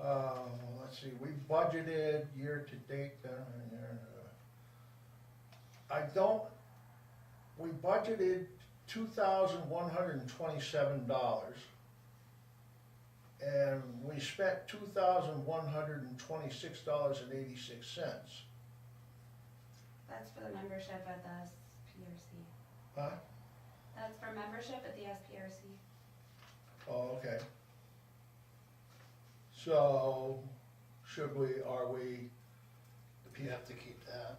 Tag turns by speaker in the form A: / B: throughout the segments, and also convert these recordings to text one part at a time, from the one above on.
A: Uh, see, we budgeted year to date down in there. uh, I don't, we budgeted two thousand one hundred and twenty-seven dollars. And we spent two thousand one hundred and twenty-six dollars and eighty-six cents.
B: That's for the membership at the SPRC.
A: Huh?
B: That's for membership at the SPRC.
A: Oh, okay. So, should we, are we,
C: You have to keep that.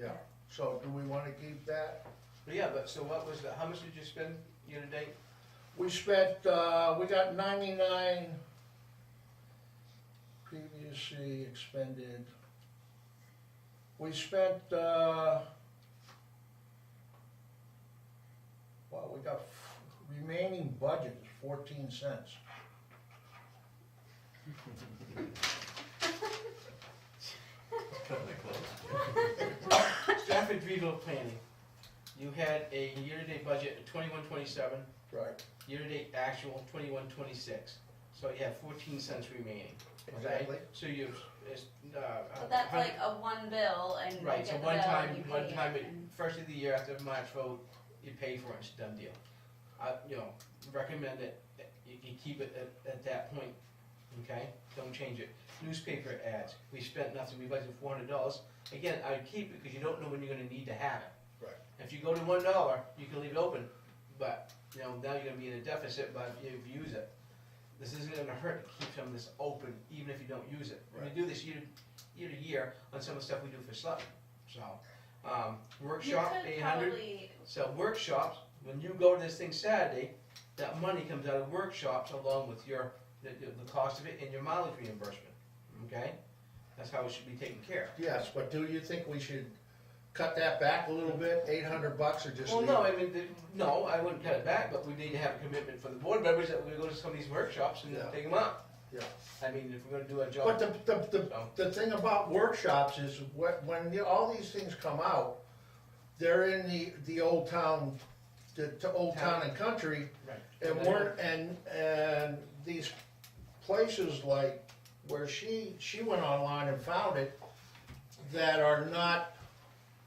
A: yeah, so do we wanna keep that?
C: But yeah, but so what was the, how much did you spend year to date?
A: We spent, uh, we got ninety-nine previously expended. We spent, uh, well, we got f- remaining budget is fourteen cents.
C: Stafford regional planning, you had a year-to-date budget of twenty-one twenty-seven,
A: Right.
C: year-to-date actual twenty-one twenty-six. So you have fourteen cents remaining, okay?
A: Exactly.
C: So you, it's, uh.
B: But that's like a one bill and you
C: Right,
B: get
C: so
B: the bill
C: one time,
B: and you pay
C: one time,
B: it.
C: it- first of the year after March vote, you pay for it, it's a done deal. I, you know, recommend it, that you, you keep it at, at that point, okay? Don't change it. Newspaper ads, we spent nothing, we budgeted four hundred dollars. Again, I would keep it because you don't know when you're gonna need to have it.
A: Right.
C: If you go to one dollar, you can leave it open, but, you know, now you're gonna be in a deficit, but if you use it. This isn't gonna hurt to keep some of this open, even if you don't use it. We
A: Right.
C: do this year, year to year on some of the stuff we do for Sutton, so. Um,
B: You
C: workshop,
B: could
C: eight hundred.
B: probably,
C: So workshops, when you go to this thing Saturday, that money comes out of workshops along with your, the, the cost of it and your mileage reimbursement, okay? That's how it should be taken care
A: Yes, but do you think we should cut that back a little bit, eight hundred bucks or
C: of.
A: just
C: Well,
A: leave
C: no,
A: it?
C: I mean, the, no, I wouldn't cut it back, but we need to have a commitment for the board members that we go to some of these workshops and
A: Yeah.
C: take them up.
A: Yeah.
C: I mean, if we're gonna do our
A: But
C: job,
A: the, the, the,
C: so,
A: the thing about workshops is when, when the- all these things come out, they're in the, the old town, the, to old town and country,
C: right.
A: and we're, and, and these places like where she, she went online and found it, that are not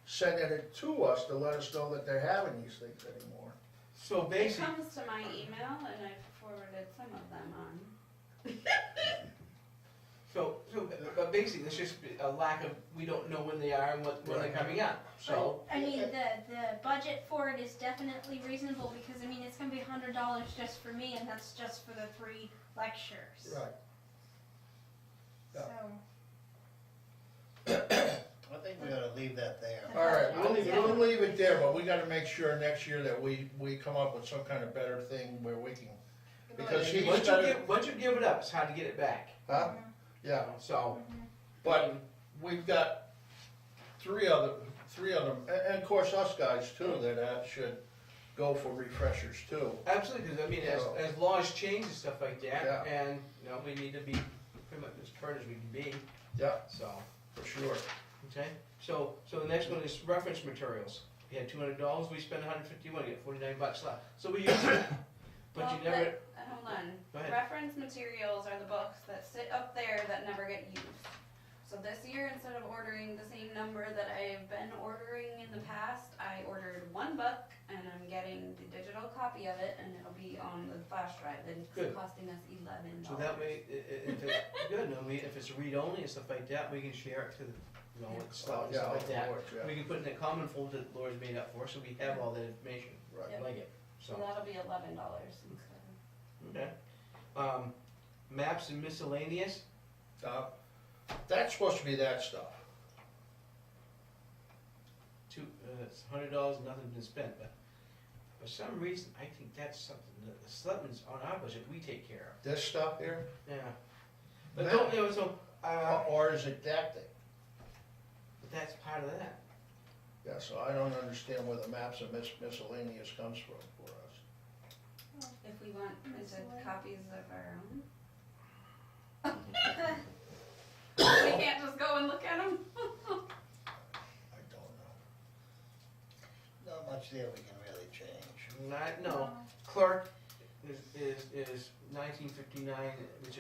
A: sending it to us to let us know that they're having these things anymore.
C: So
B: it
C: basically,
B: comes to my email and I forwarded some of them on.
C: so, so, but basically, it's just a lack of, we don't know when they are and what, when they're
A: Right.
C: coming up, so.
D: I mean, the, the budget for it is definitely reasonable because, I mean, it's gonna be hundred dollars just for me and that's just for the three lectures.
A: Right.
D: So,
E: I think we ought to leave that there.
A: All right, we'll leave, we'll leave it there, but we gotta make sure next year that we, we come up with some kind of better thing where we can, because she's
C: Once you
A: better,
C: give, once you give it up, it's hard to get it back.
A: huh? Yeah,
D: mm-hmm,
C: So,
A: but we've got three other, three other, and, and of course us guys too, that uh, should go for refreshers too.
C: absolutely, because I mean, as,
A: So-
C: as laws change and stuff like
A: Yeah.
C: that, and, you know, we need to be pretty much as current as we can be,
A: Yeah,
C: so,
A: for sure.
C: okay? So, so the next one is reference materials. We had two hundred dollars, we spent hundred fifty-one, you got forty-nine bucks left. So we used it, but
B: Well,
C: you never,
B: Uh, Hold on.
C: Go ahead.
B: Reference materials are the books that sit up there that never get used. So this year, instead of ordering the same number that I've been ordering in the past, I ordered one book and I'm getting the digital copy of it and it'll be on the flash drive and it's
C: Good.
B: costing us eleven dollars.
C: so that way, i- i- if it's good, and I mean, if it's read-only and stuff like that, we can share it to the, you know, with stuff and
A: Yeah,
C: stuff like that.
A: Lord, yeah,
C: We can put in a common folder that Laura's made up for, us, so we have all that information.
A: right.
C: I like it, so,
B: So that'll be eleven dollars instead of.
C: okay. Um, maps and miscellaneous,
A: Uh, That's supposed to be that stuff.
C: two, uh, it's hundred dollars, nothing's been spent, but for some reason, I think that's something that the selectmen's on our budget, we take care
A: This stuff here,
C: of, yeah. But don't, you know, so, uh,
A: or- or is it that thing?
C: but that's part of that.
A: Yeah, so I don't understand where the maps and mis- miscellaneous comes from for us.
B: If we want printed
D: Miscellaneous.
B: copies of our own. We can't just go and look at them.
A: I don't
E: Not much there we can really change.
C: Not, no, clerk is, is, is nineteen fifty-nine, which is